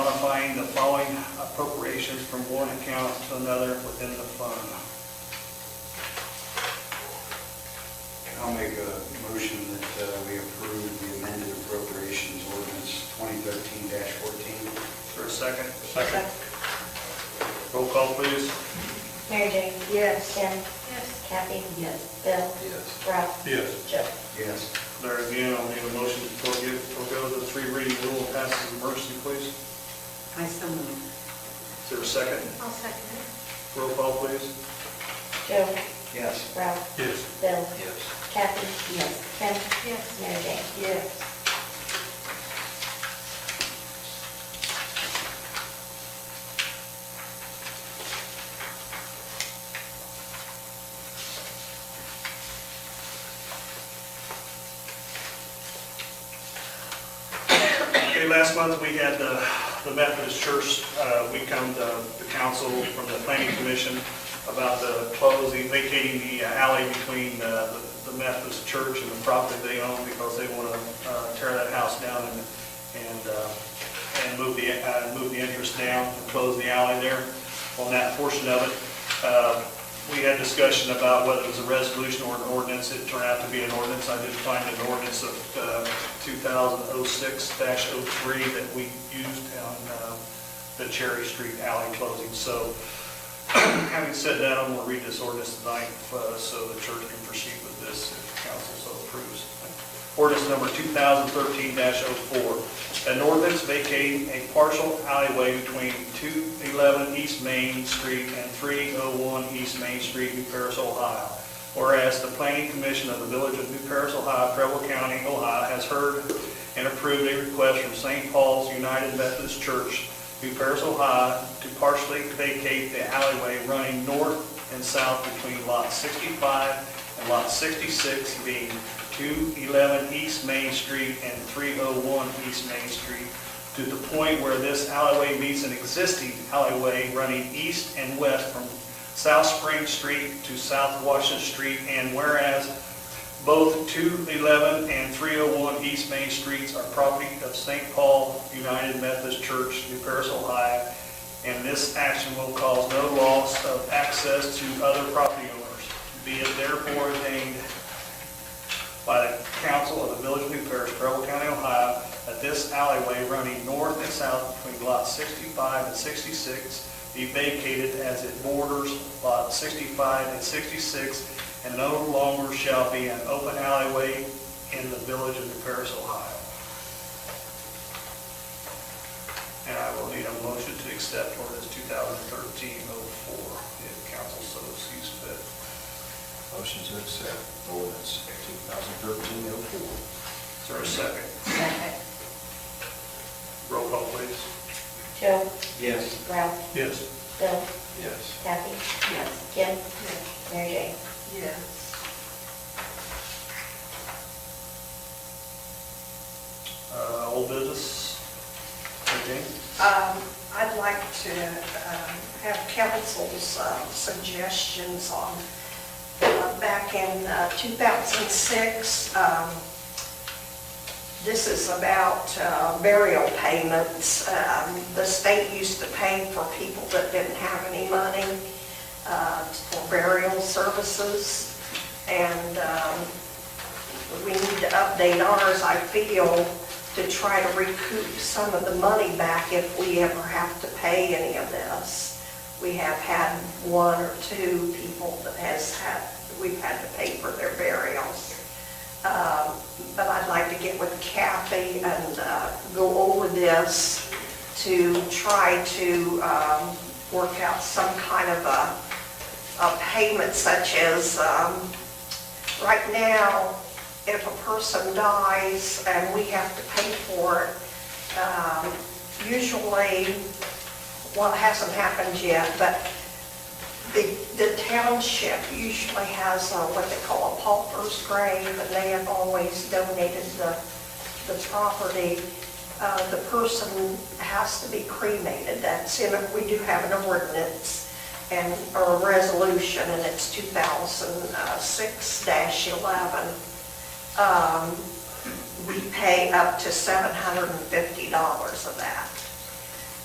the following appropriations from one account to another within the fund. I'll make a motion that uh, we approve the amended appropriations ordinance 2013-14. For a second? Second. Roll call, please. Mary Jane? Yes. Kim? Yes. Kathy? Yes. Bill? Yes. Ralph? Yes. Joe? Yes. There again, I'll need a motion to forego forego the three reading rule and pass as emergency, please. I so move. Is there a second? I'll second it. Roll call, please. Joe? Yes. Ralph? Yes. Bill? Yes. Kathy? Yes. Kim? Yes. Mary Jane? Yes. Okay, last month, we had the the Methodist Church, uh, we come to the council from the planning commission about the closing, vacating the alley between uh, the the Methodist Church and the property they own because they want to tear that house down and, and, uh, and move the, uh, move the entrance down and close the alley there on that portion of it. Uh, We had discussion about whether it was a resolution or an ordinance. It turned out to be an ordinance. I did find an ordinance of uh, 2006-03 that we used on uh, the Cherry Street alley closing. So having said that, I'm going to read this ordinance tonight uh, so the church can proceed with this if council so approves. Ordinance number 2013-04, an ordinance vacating a partial alleyway between 211 East Main Street and 301 East Main Street, New Paris, Ohio. Whereas the planning commission of the village of New Paris, Ohio, Preble County, Ohio, has heard and approved a request from St. Paul's United Methodist Church, New Paris, Ohio, to partially vacate the alleyway running north and south between Lot 65 and Lot 66, being 211 East Main Street and 301 East Main Street, to the point where this alleyway meets an existing alleyway running east and west from South Spring Street to South Washington Street, and whereas both 211 and 301 East Main Streets are property of St. Paul United Methodist Church, New Paris, Ohio, and this action will cause no loss of access to other property owners. Be it therefore ordained by the council of the Village of New Paris, Preble County, Ohio, that this alleyway running north and south between Lot 65 and 66 be vacated as it borders Lot 65 and 66 and no longer shall be an open alleyway in the Village of New Paris, Ohio. And I will need a motion to accept ordinance 2013-04 if council so sees fit. Motion to accept ordinance 2013-04. Is there a second? Second. Roll call, please. Joe? Yes. Ralph? Yes. Bill? Yes. Kathy? Yes. Kim? Yes. Mary Jane? Yes. Uh, Old business? Okay. Um, I'd like to um, have council's um, suggestions on, uh, back in uh, 2006, um, this is about uh, burial payments. Um, The state used to pay for people that didn't have any money uh, for burial services. And um, we need to update ours, I feel, to try to recoup some of the money back if we ever have to pay any of this. We have had one or two people that has had, we've had to pay for their burials. Um, But I'd like to get with Kathy and uh, go over this to try to um, work out some kind of a, a payment such as, um, right now, if a person dies and we have to pay for it, um, usually, well, it hasn't happened yet, but the the township usually has uh, what they call a pauper's grave, and they have always donated the, the property. Uh, The person has to be cremated, that's in, it. we do have an ordinance and, or a resolution, and it's uh, 2006-11 um, we pay up to $750 of that.